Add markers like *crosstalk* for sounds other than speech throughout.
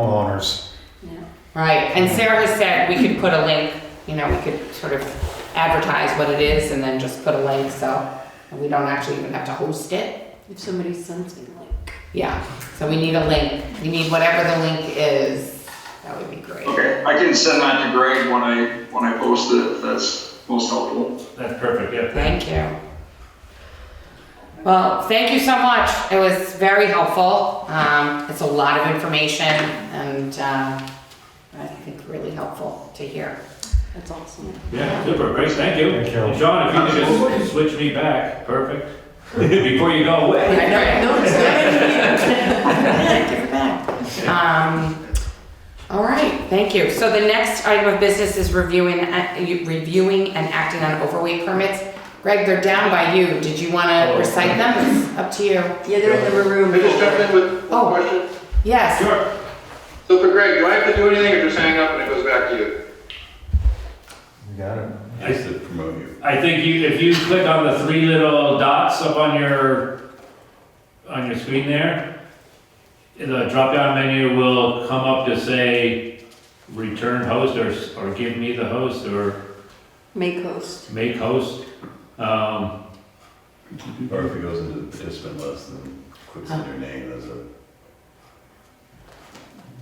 homeowners. Yeah. Right, and Sarah has said we could put a link, you know, we could sort of advertise what it is and then just put a link, so we don't actually even have to host it. If somebody sends me like. Yeah, so we need a link, we need whatever the link is, that would be great. Okay, I can send that to Greg when I, when I post it, if that's most helpful. That's perfect, yeah. Thank you. Well, thank you so much. It was very helpful. Um, it's a lot of information and, uh, I think really helpful to hear. That's *laughs* awesome. Yeah, super, great, thank you. Thank you. And John, if you could just switch me back, perfect, before you go away. No, it's Give it back. Um, all right, thank you. So the next item of business is reviewing, uh, you- reviewing and acting on overweight permits. Greg, they're down by you. Did you wanna recite them? It's Up to you. Yeah, they're in the room. Can I just jump in with Oh. one question? Yes. Sure. So for Greg, do I have to do anything or just hang up and it goes back to you? You got it. I said promote you. I think you, if you click on the three little dots up on your, on your screen there, the drop-down menu will come up to say, return host, or, s- or give me the host, or Make host. make host. Um, Or if it goes into the participant list and clicks on your name as a.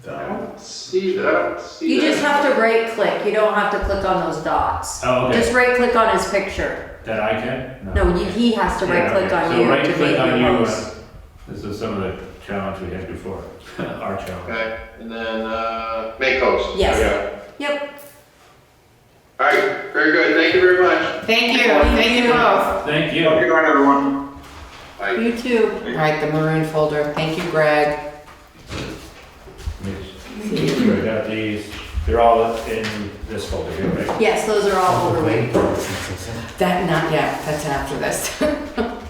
I Down. don't see that, I don't see that. You just have to right click, you don't have to click on those dots. oh, okay, Just right click on his picture. that I can? No, you- he has to right click Yeah, okay. on So you right to click make on your you, uh, post. This is some of the challenge we had before, *laughs* our challenge. Okay, and then, uh, make host. Yes. Yeah. Yep, All right, very good, thank you very much. Thank you, thank you both. Thank you. Have a good night, everyone. Bye. You too. All right, the maroon folder. Thank you, Greg. We got these, they're all in this folder here, right? yes, those are all overweight. That, not yet, that's after this. *laughs*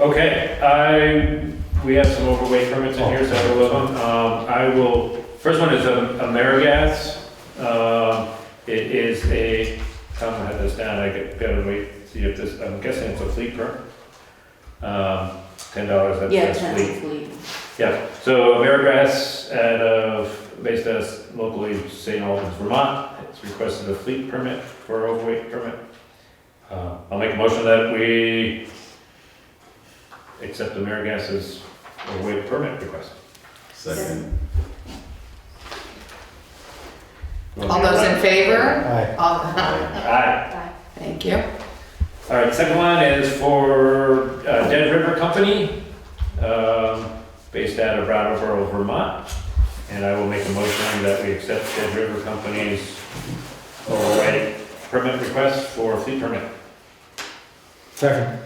Okay, I, we have some overweight permits in here, several of them. Um, I will, first one is um, AmeriGas. Um, It is a, Tom had this down, I got- gotta wait, see if this, I'm guessing it's a fleet permit. Um, Ten dollars, that's Yeah, that's fleet. technically. Yeah, so AmeriGas out of, uh, based out of locally St. Albans, Vermont, it's requested a fleet permit for overweight permit. Uh, I'll make a motion that we accept AmeriGas's overweight permit request. Second. All those in favor? Aye. All, *laughs* Aye. thank you. All right, second one is for uh, Dead River Company, um, based out of Brattleboro, Vermont. And I will make a motion that we accept Dead River Company's overweight permit request for fleet permit. Second.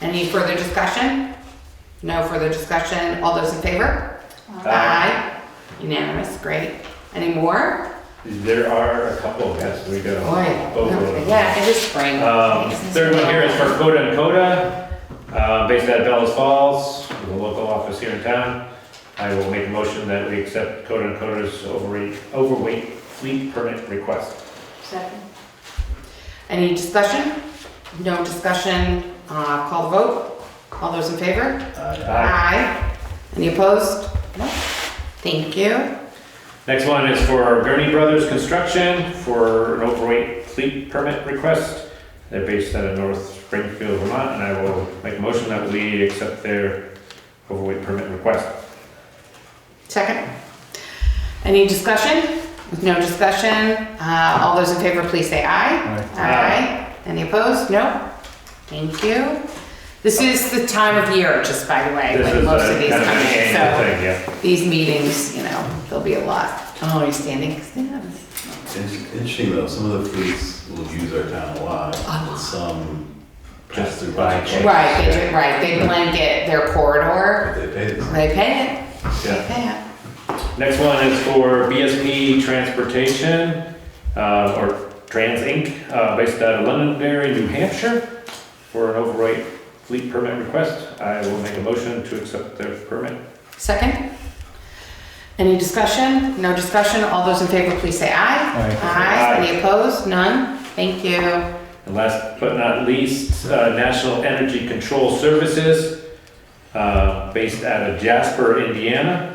Any further discussion? No further discussion, all those in favor? Aye. Unanimous, great. Any more? There are a couple, yes, we go. Boy, over them. yeah, it is spring. Um, Third one here is for Coda and Coda, uh, based out of Bellas Falls, with a local office here in town. I will make a motion that we accept Coda and Coda's overweight, overweight fleet permit request. Second. Any discussion? No discussion, uh, call the vote. All those in favor? Aye. Aye. Any opposed? No. Thank you. Next one is for Gurney Brothers Construction for an overweight fleet permit request. They're based out of North Springfield, Vermont, and I will make a motion that we accept their overweight permit request. Second. Any discussion? With No discussion. Uh, all those in favor, please say aye. Aye. Aye. Any opposed? No? Thank you. This is the time of year, just by the way, This when is most of a these kind of come an in, annual so thing, yeah. these meetings, you know, there'll be a lot. Oh, you're standing? Stand. In- Interesting though, some of the fleets will use our town a lot, and some pass through By budget. checks. Right, they do, right, they blanket their corridor, But They pay the they pay it, Yeah. they pay it. Next one is for BSP Transportation, uh, or Trans Inc., uh, based out of Londonderry, New Hampshire, for an overweight fleet permit request. I will make a motion to accept their permit. Second? Any discussion? No discussion? All those in favor, please say aye. Aye. Aye. Any opposed? None? Thank you. And last but not least, uh, National Energy Control Services, uh, based out of Jasper, Indiana,